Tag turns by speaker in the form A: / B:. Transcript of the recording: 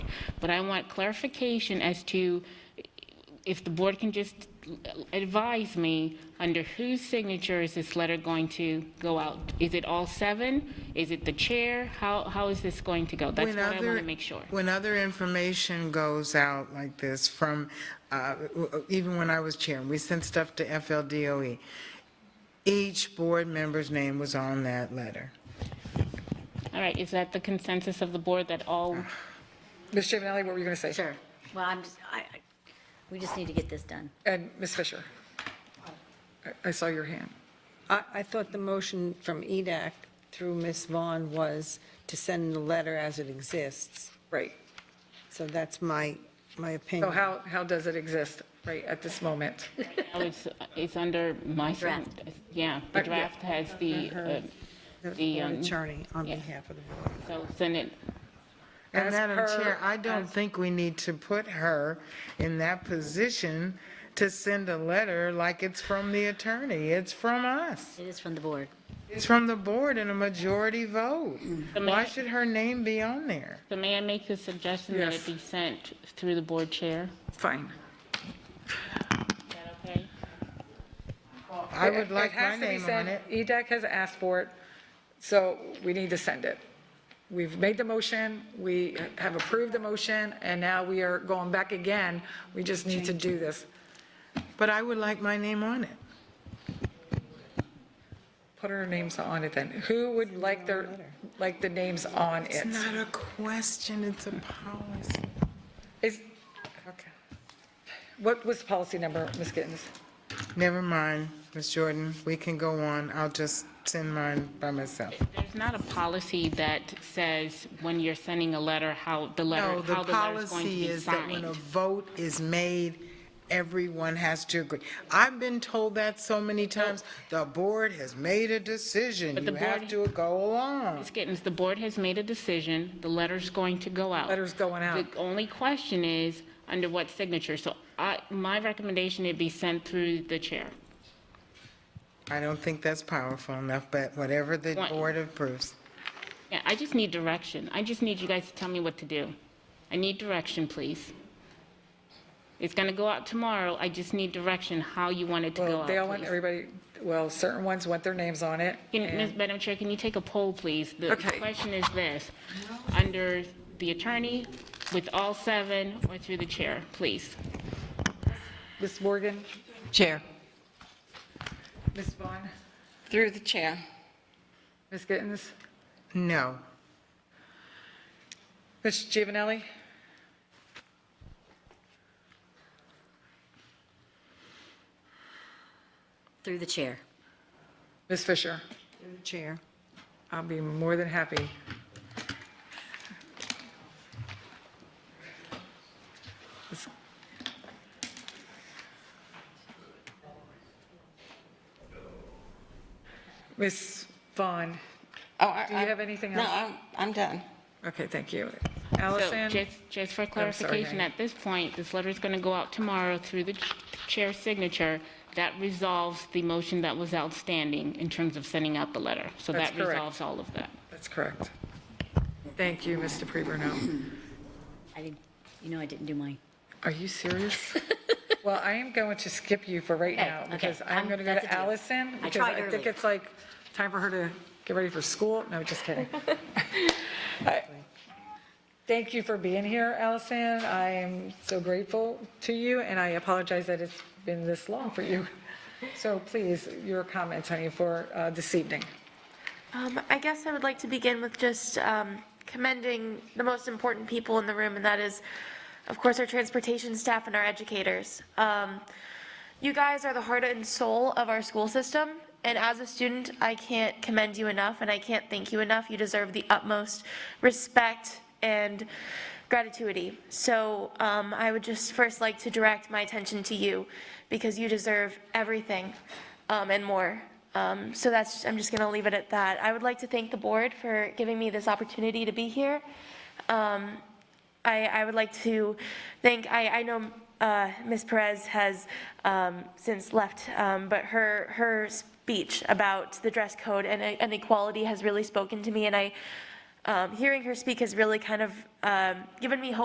A: But I want clarification as to if the board can just advise me, under whose signature is this letter going to go out? Is it all seven? Is it the chair? How, how is this going to go? That's
B: When
A: what I want
B: other-
A: to make sure.
B: When other information goes out like this from, uh, even when I was chair, we sent stuff to FLDOE. E. Each board member's name was on that letter.
A: All right, is that the consensus of the board that all,
C: Ms. Javanelli, what were you going to say?
D: Sure. Well, I'm just, I, I- we just need to get this done.
C: And Ms. Fisher? I- I saw your hand.
E: I, I thought the motion from E EDAC through Ms. Vaughn was to send the letter as it exists.
C: Right.
E: So that's my, my
C: So
E: opinion.
C: how, how does it exist right at this moment?
A: now it's, it's under my, sign-
D: Draft.
A: yeah, the draft has the, uh,
E: The
A: the,
E: board
A: um,
E: attorney on
A: yeah.
E: behalf of the board.
A: so Senate,
B: And
C: As
B: Madam
C: per-
B: Chair, I don't think we need to put her in that position to send a letter like it's from the attorney. It's from us.
D: It is from the board.
B: It's from the board in a majority vote. Why
A: Madam-
B: should her name be on there?
A: so may I make the suggestion that it
C: Yes.
A: be sent through the board chair?
C: Fine.
A: Is that okay?
B: I would
C: It-
B: like
C: it has
B: my
C: to be E
B: name on
C: sent.
B: it.
C: EDAC has asked for it, so we need to send it. We've made the motion, we have approved the motion, and now we are going back again. We just need to do this.
B: But I would like my name on it.
C: Put our names on it then. Who would like their, like the names on
B: It's
C: it?
B: not a question, it's a policy.
C: Is, okay. What was the policy number, Ms. Gittens?
B: Never mind, Ms. Jordan, we can go on. I'll just send mine by myself.
A: There's not a policy that says when you're sending a letter, how the letter,
B: No, the
A: how the letter's going to
B: policy
A: be
B: is that when a
A: signed.
B: vote is made, everyone has to agree. I've been told that so many times. The board has made a decision.
A: But the
B: You have to
A: board-
B: go along.
A: Ms. Gittens, the board has made a decision, the letter's going to go out.
C: Letter's going out.
A: The only question is, under what signature? So I, my recommendation, it be sent through the chair.
B: I don't think that's powerful enough, but whatever the
A: Why-
B: board approves.
A: Yeah, I just need direction. I just need you guys to tell me what to do. I need direction, please. It's going to go out tomorrow, I just need direction, how you want it to go
C: Well,
A: out,
C: they all want,
A: please.
C: everybody, well, certain ones want their names on it.
A: Can, Ms.
C: and-
A: Madam Chair, can you take a poll, please? The
C: Okay.
A: question is this, under the attorney, with all seven, or through the chair, please?
C: Ms. Morgan?
F: Chair.
C: Ms. Vaughn?
F: Through the chair.
C: Ms. Gittens?
B: No.
C: Ms. Giovanelli?
D: Through the chair.
C: Ms. Fisher?
E: Chair.
C: I'll be more than happy. Ms. Vaughn? Do you have anything
F: Oh, No,
C: else?
F: I'm, I'm done.
C: Okay, thank you.
A: So
C: Allison?
A: just, just for
C: sorry,
A: clarification,
C: Mary.
A: at this point, this letter is going to go out tomorrow through the ch- chair's signature. That resolves the motion that was outstanding in terms of sending out the letter. So
C: That's
A: that
C: correct.
A: resolves all of that.
C: That's correct. Thank you, Mr. DePreborn.
D: I didn't, you know I didn't do mine.
C: Are you serious? Well, I am going to skip you for right
D: Okay,
C: now
D: okay.
C: because I'm
D: I'm-
C: going to go
D: that's
C: to
D: a deal.
C: Allison.
D: I
C: because
D: tried
C: I think
D: earlier.
C: it's like time for her to get ready for school. No, just kidding. I- Thank you for being here, Allison. I am so grateful to you and I apologize that it's been this long for you. So please, your comments, honey, for uh, this evening.
G: Um, I guess I would like to begin with just um, commending the most important people in the room, and that is, of course, our transportation staff and our educators. Um, You guys are the heart and soul of our school system, and as a student, I can't commend you enough, and I can't thank you enough. You deserve the utmost respect and gratitude. So um, I would just first like to direct my attention to you, because you deserve everything um, and more. Um, So that's, I'm just going to leave it at that. I would like to thank the board for giving me this opportunity to be here. Um, I, I would like to thank, I, I know uh, Ms. Perez has um, since left, um, but her, her speech about the dress code and, uh, and equality has really spoken to me, and I, um, hearing her speak has really kind of um, given me hope